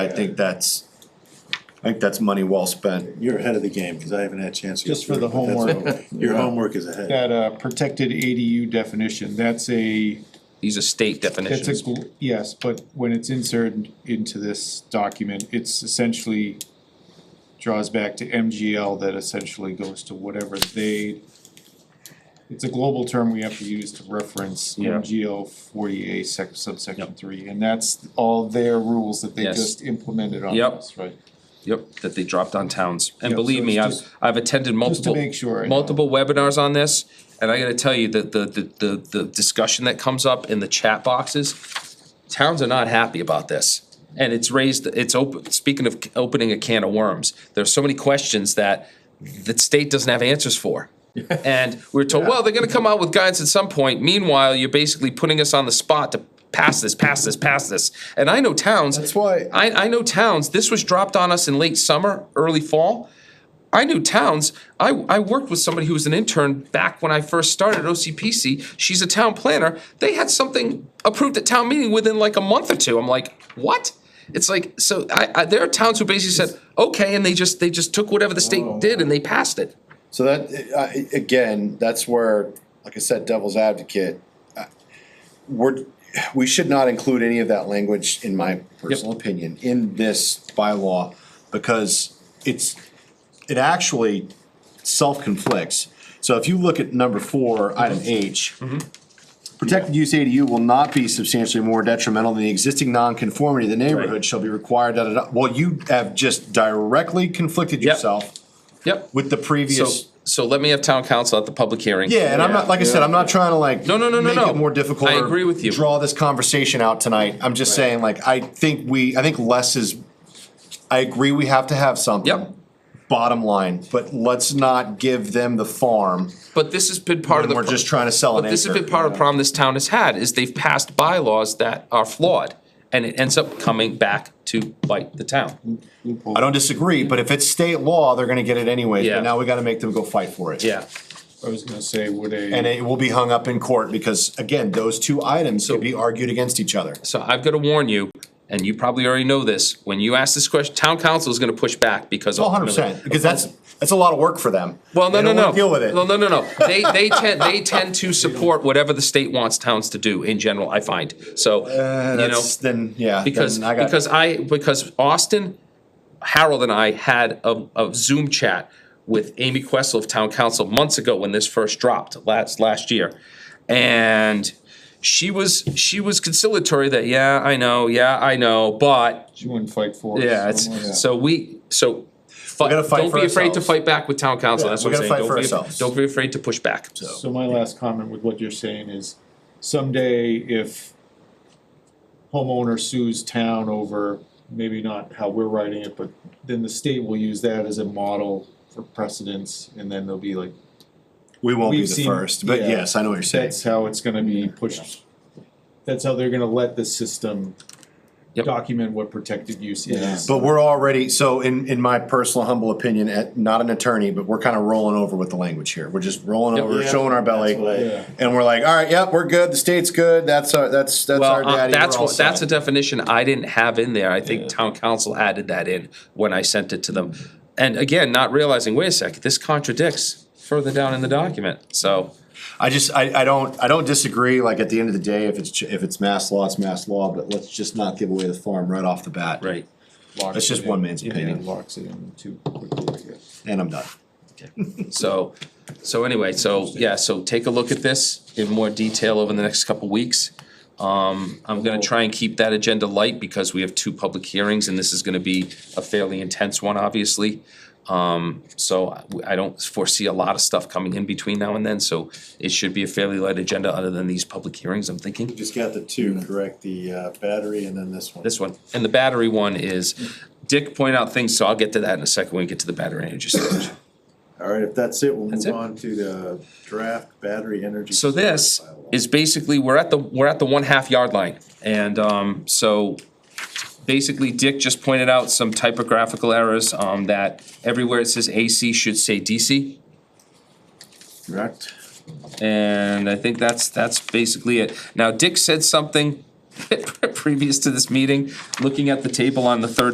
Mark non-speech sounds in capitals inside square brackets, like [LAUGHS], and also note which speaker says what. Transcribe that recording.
Speaker 1: I think that's, I think that's money well spent.
Speaker 2: You're ahead of the game, cause I haven't had a chance. to
Speaker 3: Just for
Speaker 2: go
Speaker 3: the
Speaker 2: through it, but that's
Speaker 3: homework.
Speaker 2: okay. Your homework is ahead.
Speaker 3: That uh, protected ADU definition, that's a,
Speaker 4: These are state
Speaker 3: that's a,
Speaker 4: definitions.
Speaker 3: gl- yes, but when it's inserted into this document, it's essentially draws back to MGL that essentially goes to whatever they, it's a global term we have to use to reference
Speaker 4: Yeah.
Speaker 3: MGL forty A sec subsection three, and that's all their rules that they
Speaker 4: Yes.
Speaker 3: just implemented on
Speaker 4: Yep.
Speaker 3: us, right?
Speaker 4: Yep, that they dropped on towns. And
Speaker 3: Yeah,
Speaker 4: believe
Speaker 3: so
Speaker 4: me,
Speaker 3: it's
Speaker 4: I've,
Speaker 3: just-
Speaker 4: I've attended
Speaker 3: Just to
Speaker 4: multiple,
Speaker 3: make sure. I know.
Speaker 4: multiple webinars on this. And I gotta tell you that the, the, the, the discussion that comes up in the chat boxes, towns are not happy about this. And it's raised, it's open, speaking of opening a can of worms, there's so many questions that the state doesn't have answers for. And we're told, well, they're gonna come out with guidance at some point. Meanwhile, you're basically putting us on the spot to pass this, pass this, pass this. And I know towns.
Speaker 1: That's why-
Speaker 4: I, I know towns, this was dropped on us in late summer, early fall. I knew towns, I, I worked with somebody who was an intern back when I first started at OCPC. She's a town planner. They had something approved at town meeting within like a month or two. I'm like, what? It's like, so I, I, there are towns who basically said, okay, and they just, they just took whatever the state did and they passed it.
Speaker 1: So that, I, again, that's where, like I said, devil's advocate. I- We're, we should not include any of that language, in my personal opinion, in this bylaw. Because it's, it actually self-conflicts. So if you look at number four, item H.
Speaker 4: Mm-hmm.
Speaker 1: Protected use ADU will not be substantially more detrimental than the existing nonconformity of the neighborhood shall be required, da, da, da. Well, you have just directly conflicted
Speaker 4: Yep.
Speaker 1: yourself
Speaker 4: Yep.
Speaker 1: with the
Speaker 4: So,
Speaker 1: previous.
Speaker 4: so let me have town council at the public hearing.
Speaker 1: Yeah, and I'm not, like I said, I'm not trying to like.
Speaker 4: No, no, no, no,
Speaker 1: make
Speaker 4: no.
Speaker 1: it More difficult.
Speaker 4: I
Speaker 1: or
Speaker 4: agree with you.
Speaker 1: Draw this conversation out tonight. I'm just saying, like, I think we, I think less is, I agree we have to have something.
Speaker 4: Yep.
Speaker 1: Bottom line, but let's not give them the farm
Speaker 4: But this has been part of
Speaker 1: when
Speaker 4: the.
Speaker 1: we're just trying to sell an
Speaker 4: But this has
Speaker 1: acre.
Speaker 4: been part of the problem this town has had, is they've passed bylaws that are flawed, and it ends up coming back to bite the town.
Speaker 1: I don't disagree, but if it's state law, they're gonna get it anyway.
Speaker 4: Yeah.
Speaker 1: But now we gotta make them go fight for it.
Speaker 4: Yeah,
Speaker 3: I was gonna say, would a.
Speaker 1: And it will be hung up in court because, again, those two items could be argued against each other.
Speaker 4: so I've gotta warn you, and you probably already know this, when you ask this question, town council is gonna push back because.
Speaker 1: Oh, 100
Speaker 4: ultimately-
Speaker 1: percent, because that's, that's a lot of work for them.
Speaker 4: Well, no,
Speaker 1: They
Speaker 4: no,
Speaker 1: don't wanna
Speaker 4: no.
Speaker 1: Deal with it.
Speaker 4: No, no, no, no. They, they tend, they tend to support whatever the state wants towns to do in general, I find, so,
Speaker 1: Uh,
Speaker 4: you know.
Speaker 1: that's, then, yeah.
Speaker 4: Because,
Speaker 1: then I got-
Speaker 4: because I, because Austin, Harold and I had a, a Zoom chat with Amy Questle of Town Council months ago when this first dropped, last, last year. And she was, she was conciliatory that, yeah, I know, yeah, I know, but,
Speaker 3: She wouldn't fight for us.
Speaker 4: yeah,
Speaker 3: Someone-
Speaker 4: it's, so we, so. We
Speaker 1: gotta fight
Speaker 4: Don't
Speaker 1: for
Speaker 4: be afraid to
Speaker 1: ourselves.
Speaker 4: fight back with Town Council,
Speaker 1: Yeah,
Speaker 4: that's
Speaker 1: we
Speaker 4: what I'm
Speaker 1: gotta fight
Speaker 4: saying. Don't
Speaker 1: for
Speaker 4: be-
Speaker 1: ourselves.
Speaker 4: Don't be afraid to push back.
Speaker 3: So my last comment with what you're saying is someday if homeowner sues town over, maybe not how we're writing it, but then the state will use that as a model for precedence and then they'll be like,
Speaker 1: We won't be
Speaker 3: We've
Speaker 1: the
Speaker 3: seen-
Speaker 1: first, but
Speaker 3: yeah.
Speaker 1: yes, I know what you're saying.
Speaker 3: that's how it's gonna be pushed. That's how they're gonna let the system
Speaker 4: Yep.
Speaker 3: document what protected use is.
Speaker 1: But we're already, so in, in my personal humble opinion, at, not an attorney, but we're kind of rolling over with the language here. We're just rolling
Speaker 4: Yep.
Speaker 1: over,
Speaker 2: Yeah.
Speaker 1: showing our belly.
Speaker 2: That's what I-
Speaker 3: Yeah.
Speaker 1: And we're like, all right, yep, we're good. The state's good. That's our, that's, that's our
Speaker 4: Well, uh,
Speaker 1: daddy.
Speaker 4: that's
Speaker 1: We're all
Speaker 4: what, that's a
Speaker 1: set.
Speaker 4: definition I didn't have in there, I think town council added that in when I sent it to them. And again, not realizing, wait a second, this contradicts further down in the document, so,
Speaker 1: I just, I, I don't, I don't disagree. Like at the end of the day, if it's, ch- if it's mass law, it's mass law, but let's just not give away the farm right off the bat.
Speaker 4: right.
Speaker 3: Locks
Speaker 1: that's just
Speaker 3: it in.
Speaker 1: one man's
Speaker 3: Yeah,
Speaker 1: opinion.
Speaker 3: Locks it in too quickly, I guess.
Speaker 1: And I'm done.
Speaker 4: So, so anyway, so, yeah, so take a look at this in more detail over the next couple weeks. Um, I'm gonna try and keep that agenda light because we have two public hearings and this is gonna be a fairly intense one, obviously. Um, so I- I don't foresee a lot of stuff coming in between now and then, so it should be a fairly light agenda other than these public hearings, I'm thinking.
Speaker 2: Just got the two, correct, the uh, battery and then this one.
Speaker 4: This one, and the battery one is, Dick pointed out things, so I'll get to that in a second when we get to the battery energy storage.
Speaker 2: Alright, if that's it, we'll
Speaker 4: That's
Speaker 2: move
Speaker 4: it.
Speaker 2: on to the draft battery energy.
Speaker 4: So this
Speaker 2: storage bylaw.
Speaker 4: is basically, we're at the, we're at the one half yard line, and, um, so basically Dick just pointed out some typographical errors, um, that everywhere it says AC should say DC.
Speaker 2: Correct.
Speaker 4: And I think that's, that's basically it. [LAUGHS] Now, Dick said something previous to this meeting, looking at the table on the third